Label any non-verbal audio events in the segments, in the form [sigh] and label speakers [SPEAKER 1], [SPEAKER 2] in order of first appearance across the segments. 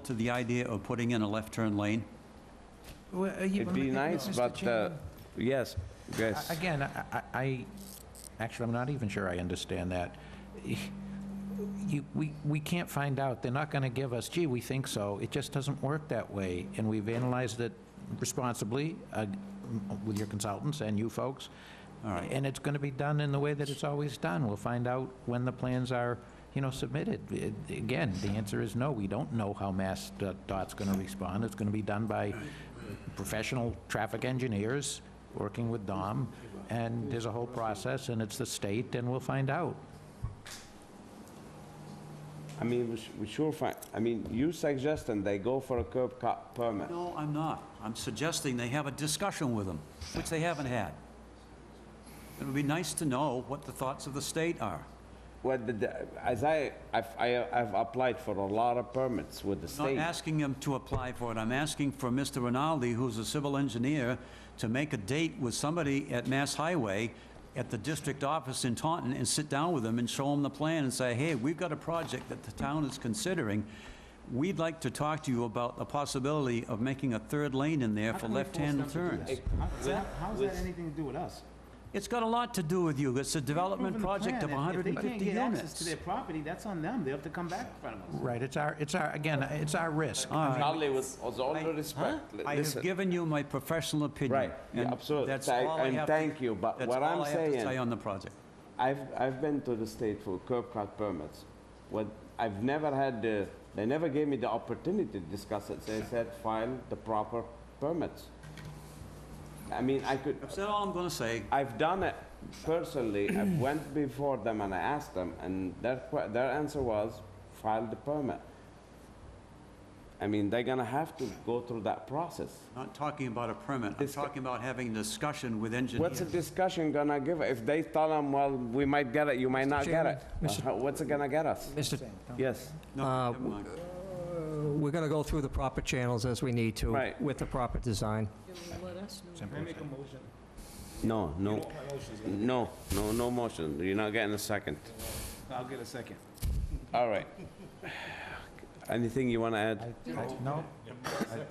[SPEAKER 1] to the idea of putting in a left turn lane?
[SPEAKER 2] It'd
[SPEAKER 3] It'd
[SPEAKER 2] be nice, but, uh, yes, yes.
[SPEAKER 3] Again, I- I, I, actually, I'm not even sure I understand that. You, we, we can't find out, they're not gonna give us, gee, we think so, it just doesn't work that way, and we've analyzed it responsibly uh, with your consultants and you folks.
[SPEAKER 1] All right.
[SPEAKER 3] And it's gonna be done in the way that it's always done, we'll find out when the plans are, you know, submitted. It- Again, the answer is no, we don't know how Mass Dot's gonna respond, it's gonna be done by professional traffic engineers, working with Dom, and there's a whole process, and it's the state, and we'll find out.
[SPEAKER 2] I mean, we sh- we sure find, I mean, you suggesting they go for a curb cut permit.
[SPEAKER 1] No, I'm not. I'm suggesting they have a discussion with them, which they haven't had. It would be nice to know what the thoughts of the state are.
[SPEAKER 2] Well, the- the- as I, I've, I- I've applied for a lot of permits with the
[SPEAKER 1] I'm
[SPEAKER 2] state.
[SPEAKER 1] not asking them to apply for it. I'm asking for Mr. Rinaldi, who's a civil engineer, to make a date with somebody at Mass Highway at the district office in Taunton and sit down with them and show them the plan and say, hey, we've got a project that the town is considering. We'd like to talk to you about the possibility of making a third lane in there for left-hand turns.
[SPEAKER 4] How's that anything to do with us?
[SPEAKER 1] It's got a lot to do with you. It's a development project of 150
[SPEAKER 4] If they can't get access
[SPEAKER 1] units.
[SPEAKER 4] to their property, that's on them, they have to come back in front of us.
[SPEAKER 3] Right, it's our, it's our, again, it's our risk.
[SPEAKER 2] Uh, Charlie, with with all due respect, li-
[SPEAKER 1] I have
[SPEAKER 2] listen,
[SPEAKER 1] given you my professional opinion.
[SPEAKER 2] Right, yeah,
[SPEAKER 1] and
[SPEAKER 2] absolutely.
[SPEAKER 1] that's
[SPEAKER 2] Thank-
[SPEAKER 1] all I
[SPEAKER 2] and
[SPEAKER 1] have to-
[SPEAKER 2] thank you, but what I'm
[SPEAKER 1] That's all I have to
[SPEAKER 2] saying-
[SPEAKER 1] say on the project.
[SPEAKER 2] I've, I've been to the state for curb cut permits. What, I've never had, the they never gave me the opportunity to discuss it. They said file the proper permits. I mean, I could,
[SPEAKER 1] That's all I'm going to say.
[SPEAKER 2] I've done it personally. I went before them and I asked them, and their, que- their answer was file the permit. I mean, they're gonna have to go through that process.
[SPEAKER 1] I'm not talking about a permit. I'm
[SPEAKER 2] It's-
[SPEAKER 1] talking about having a discussion with
[SPEAKER 2] What's
[SPEAKER 1] engineers.
[SPEAKER 2] the discussion gonna give? If they tell them, well, we might get it, you might not get it. Uh, What's it gonna get us?
[SPEAKER 5] Mr.
[SPEAKER 2] Yes.
[SPEAKER 1] No, never mind.
[SPEAKER 5] We're going to go through the proper channels as we need to.
[SPEAKER 2] Right.
[SPEAKER 5] With the proper design.
[SPEAKER 2] No, no. No, no, no motion. You're not getting a second.
[SPEAKER 4] I'll get a second.
[SPEAKER 2] All right. Anything you wanna add?
[SPEAKER 3] No? I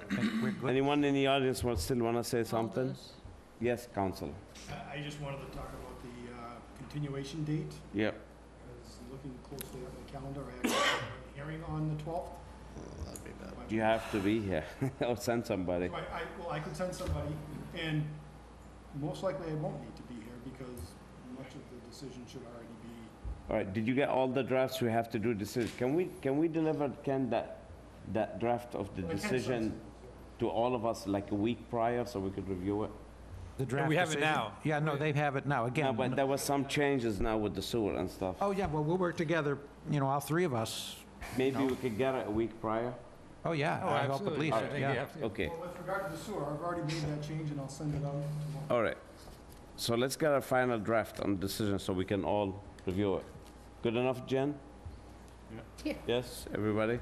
[SPEAKER 3] think we're good.
[SPEAKER 2] Anyone in the audience wa- still wanna say something? Yes, Council.
[SPEAKER 6] I- I just wanted to talk about the uh, continuation date.
[SPEAKER 2] Yep.
[SPEAKER 6] I was looking closely at my calendar. I actually have a hearing on the 12th.
[SPEAKER 2] You have to be here [laughs] or send somebody.
[SPEAKER 6] So I, I- well, I could send somebody, and most likely I won't need to be here because much of the decision should already be,
[SPEAKER 2] All right, did you get all the drafts we have to do decision? Can we, can we deliver, Ken, that, that draft of the
[SPEAKER 6] Well, I can't
[SPEAKER 2] decision to all of us like a week prior so we could review it?
[SPEAKER 3] The draft
[SPEAKER 7] we have it
[SPEAKER 3] decision-
[SPEAKER 7] now.
[SPEAKER 3] Yeah, no, they have it now,
[SPEAKER 2] No,
[SPEAKER 3] again.
[SPEAKER 2] but there was some changes now with the sewer and stuff.
[SPEAKER 3] Oh, yeah, well, we'll work together, you know, all three of us.
[SPEAKER 2] Maybe we could get it a week prior?
[SPEAKER 3] Oh, yeah,
[SPEAKER 7] Oh,
[SPEAKER 3] I hope at
[SPEAKER 7] absolutely.
[SPEAKER 3] least,
[SPEAKER 7] I think you
[SPEAKER 3] yeah.
[SPEAKER 7] have to.
[SPEAKER 2] Okay,
[SPEAKER 6] well, with regard to the sewer, I've already made that change and I'll send it out tomorrow.
[SPEAKER 2] all right. So let's get a final draft on decision so we can all review it. Good enough, Jen? Yes, everybody?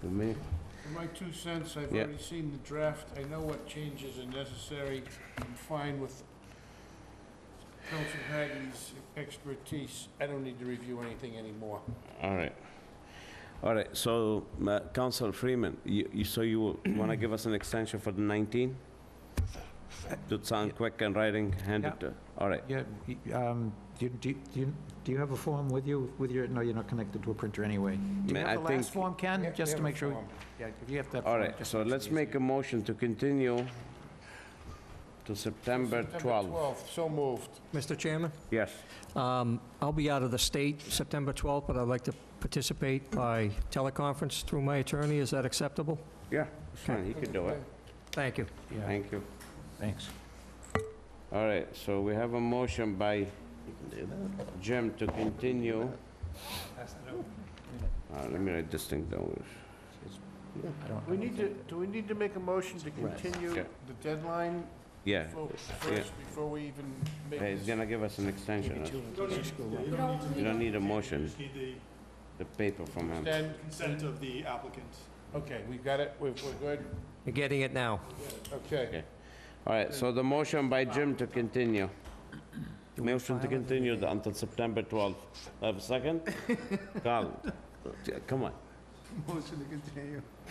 [SPEAKER 2] With me?
[SPEAKER 8] For my two cents, I've
[SPEAKER 2] Yeah.
[SPEAKER 8] already seen the draft, I know what changes are necessary, I'm fine with Council Hagley's expertise, I don't need to review anything anymore.
[SPEAKER 2] All right. All right, so, uh, Council Freeman, you, you- so you want to give us an extension for the 19? To sound quick and writing, hand it to, all right.
[SPEAKER 3] Yeah, y- um, do you- do you- do you, do you have a form with you, with your, no, you're not connected to a printer anyway. Do you
[SPEAKER 2] Man,
[SPEAKER 3] have
[SPEAKER 2] I
[SPEAKER 3] the last
[SPEAKER 2] think-
[SPEAKER 3] form, Ken,
[SPEAKER 8] we
[SPEAKER 3] just to
[SPEAKER 8] have a
[SPEAKER 3] make sure?
[SPEAKER 8] form.
[SPEAKER 3] Yeah, if you have that.
[SPEAKER 2] All
[SPEAKER 3] form,
[SPEAKER 2] right,
[SPEAKER 3] just
[SPEAKER 2] so
[SPEAKER 3] makes it
[SPEAKER 2] let's
[SPEAKER 3] easier.
[SPEAKER 2] make a motion to continue to September
[SPEAKER 8] Number
[SPEAKER 2] 12.
[SPEAKER 8] 12, so moved.
[SPEAKER 5] Mr. Chairman,
[SPEAKER 2] Yes.
[SPEAKER 5] um, I'll be out of the state September 12th, but I'd like to participate by teleconference through my attorney. Is that acceptable?
[SPEAKER 2] Yeah, it's fine, he could do it.
[SPEAKER 5] Thank you.
[SPEAKER 3] Yeah,
[SPEAKER 2] Thank you.
[SPEAKER 3] thanks.
[SPEAKER 2] All right, so we have a motion by Jim to continue. Uh, Let me write this thing down.
[SPEAKER 3] I don't-
[SPEAKER 8] We need to, do we need to make a motion to continue
[SPEAKER 2] Yeah.
[SPEAKER 8] the deadline
[SPEAKER 2] Yeah,
[SPEAKER 8] fo- first, before we even make
[SPEAKER 2] hey, he's
[SPEAKER 8] this?
[SPEAKER 2] gonna give us an extension. huh?
[SPEAKER 6] You don't need
[SPEAKER 2] You don't need a
[SPEAKER 6] to, you
[SPEAKER 2] motion,
[SPEAKER 6] just need the
[SPEAKER 2] the paper from him.
[SPEAKER 8] Then,
[SPEAKER 6] consent of the applicant.
[SPEAKER 8] okay, we got it, we're, we're good,
[SPEAKER 5] You're getting it now.
[SPEAKER 8] okay.
[SPEAKER 2] Okay. All right, so the motion by Jim to continue. Motion to continue the- until September 12th. Have a second? Carl, come on.
[SPEAKER 4] Motion to continue.